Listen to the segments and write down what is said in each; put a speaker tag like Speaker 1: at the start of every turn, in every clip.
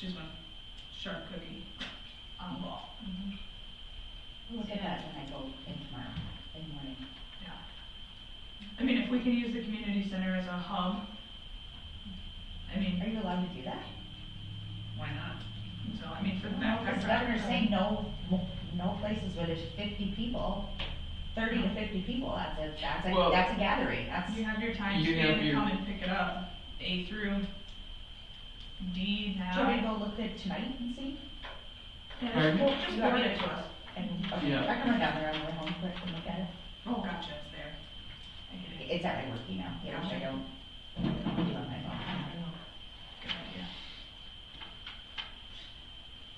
Speaker 1: to the charcuterie on the wall.
Speaker 2: Look at that when I go in tomorrow, in the morning.
Speaker 1: Yeah. I mean, if we can use the community center as a hub, I mean,
Speaker 2: Are you allowed to do that?
Speaker 1: why not? So, I mean, for
Speaker 2: No,
Speaker 1: that.
Speaker 2: Because governor's saying no, mo- no places where there's fifty people, thirty to fifty people, that's a, that's a,
Speaker 3: Well-
Speaker 2: that's a gathering, that's.
Speaker 1: You have your time
Speaker 3: You
Speaker 1: span
Speaker 3: have
Speaker 1: to
Speaker 3: your-
Speaker 1: come and pick it up, A through D
Speaker 2: Do you want me to
Speaker 1: now.
Speaker 2: go look at tonight and see?
Speaker 1: Yeah,
Speaker 3: Pardon?
Speaker 1: well, just forward it to us.
Speaker 2: And, okay,
Speaker 3: Yeah.
Speaker 2: I can run down there on the way home quick and look at it.
Speaker 1: Oh, gotcha, it's there. I get it.
Speaker 2: It's at my work email, yeah, which I don't, I don't do on my phone.
Speaker 1: Good idea.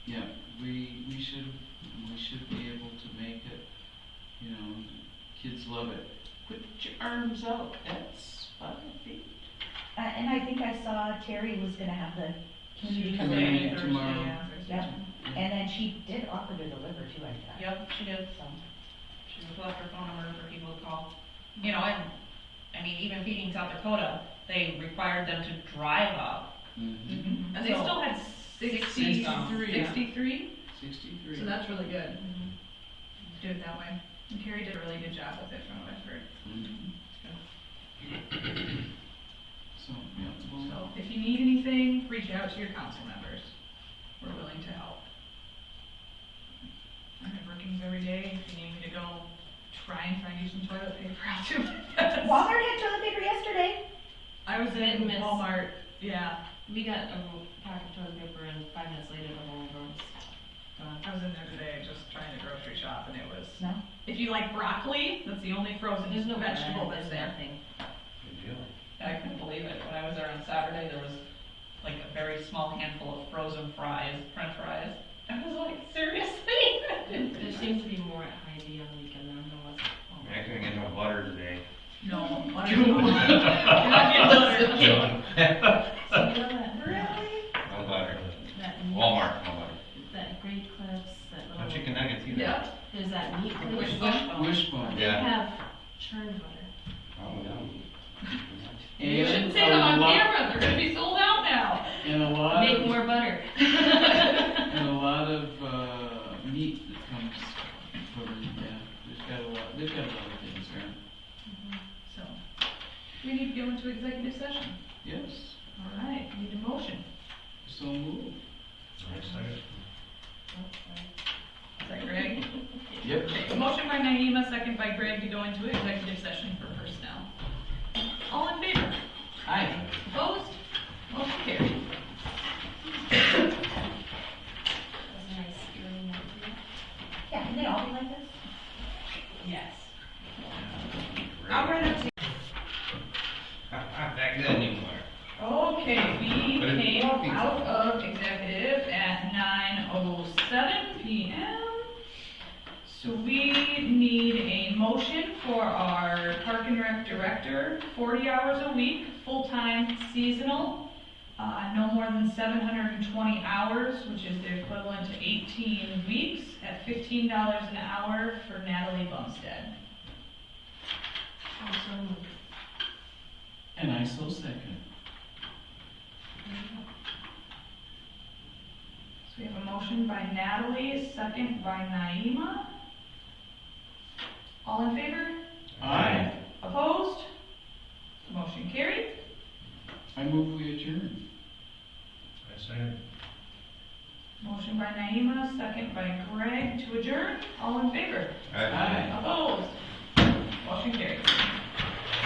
Speaker 3: Yeah, we, we should, we should be able to make it, you know, kids love it. Put your arms out, that's five feet.
Speaker 2: Uh, and I think I saw Terry was gonna have the community
Speaker 3: And
Speaker 2: come
Speaker 3: then
Speaker 2: in,
Speaker 3: it- tomorrow.
Speaker 1: yeah, Thursday.
Speaker 2: Yeah. and then she did offer to deliver too, I thought.
Speaker 4: Yep, she did.
Speaker 2: So,
Speaker 4: She would left her phone number for people to call. You know, and, I mean, even feeding South Dakota, they required them to drive up.
Speaker 3: Mhm.
Speaker 1: And they still had sixty,
Speaker 3: Sixty-three.
Speaker 1: sixty-three,
Speaker 3: Sixty-three.
Speaker 1: so that's really good. Mm-hmm. Do it that way. And Carrie did a really good job with it from what I've heard.
Speaker 3: Mhm. So, yeah, well,
Speaker 1: So if you need anything, reach out to your council members. We're willing to help. I have workings every day. If you need me to go try and find you some toilet paper, I'll do my best.
Speaker 2: Walmart had toilet paper yesterday.
Speaker 1: I was
Speaker 4: Hit
Speaker 1: in
Speaker 4: and miss.
Speaker 1: Walmart, yeah,
Speaker 4: We got a roll- pack of toilet paper and five minutes later the whole room was gone.
Speaker 1: I was in there today just trying to grocery shop and it was,
Speaker 2: No?
Speaker 1: if you like broccoli, that's the only frozen
Speaker 4: There's no
Speaker 1: vegetable that's there.
Speaker 4: nothing.
Speaker 5: Good deal.
Speaker 6: I couldn't believe it. When I was there on Saturday, there was like a very small handful of frozen fries, french fries. I was like, seriously?
Speaker 4: There seems to be more at Hy-Vee on the weekend than there was.
Speaker 5: I mean, I couldn't get no butter today.
Speaker 1: No. what are you doing? You're not getting butter.
Speaker 4: So you know that,
Speaker 5: No butter.
Speaker 4: that,
Speaker 5: Walmart, no butter.
Speaker 4: that great clips, that
Speaker 5: No
Speaker 4: little,
Speaker 5: chicken nuggets either.
Speaker 1: Yep.
Speaker 4: there's that meat
Speaker 1: Which
Speaker 4: clip.
Speaker 1: one?
Speaker 3: wishbone.
Speaker 4: They
Speaker 5: Yeah.
Speaker 4: have churned butter.
Speaker 5: Oh, no.
Speaker 6: You
Speaker 3: And
Speaker 6: shouldn't say that
Speaker 3: a
Speaker 6: on
Speaker 3: lot-
Speaker 6: camera. They're gonna be sold out now.
Speaker 3: And a lot
Speaker 4: Make
Speaker 3: of,
Speaker 4: more butter.
Speaker 3: and a lot of, uh, meat that comes from, yeah, they've got a lot, they've got a lot of things around.
Speaker 1: So, we need to go into executive session.
Speaker 3: Yes,
Speaker 1: All right, need a motion.
Speaker 3: so moved.
Speaker 1: Is that Greg?
Speaker 3: Yep.
Speaker 1: Okay, Motion by Naima, second by Greg to go into executive session for personnel. All in favor?
Speaker 3: Aye.
Speaker 1: Opposed? Motion carried.
Speaker 4: That's nice. Really nice.
Speaker 2: Yeah, can they all be like this?
Speaker 4: Yes.
Speaker 1: All right, up to-
Speaker 5: Back then anymore.
Speaker 1: Okay, we came out of executive at nine oh seven P M. So we need a motion for our park and rec director, forty hours a week, full-time seasonal. Uh, no more than seven hundred and twenty hours, which is the equivalent to eighteen weeks, at fifteen dollars an hour for Natalie Bumstead.
Speaker 4: Also moved.
Speaker 3: And I so second.
Speaker 1: So we have a motion by Natalie, second by Naima. All in favor?
Speaker 3: Aye.
Speaker 1: Opposed? Motion carried.
Speaker 3: I move we adjourn.
Speaker 5: I second.
Speaker 1: Motion by Naima, second by Greg to adjourn. All in favor?
Speaker 3: Aye.
Speaker 1: Opposed? Motion carried.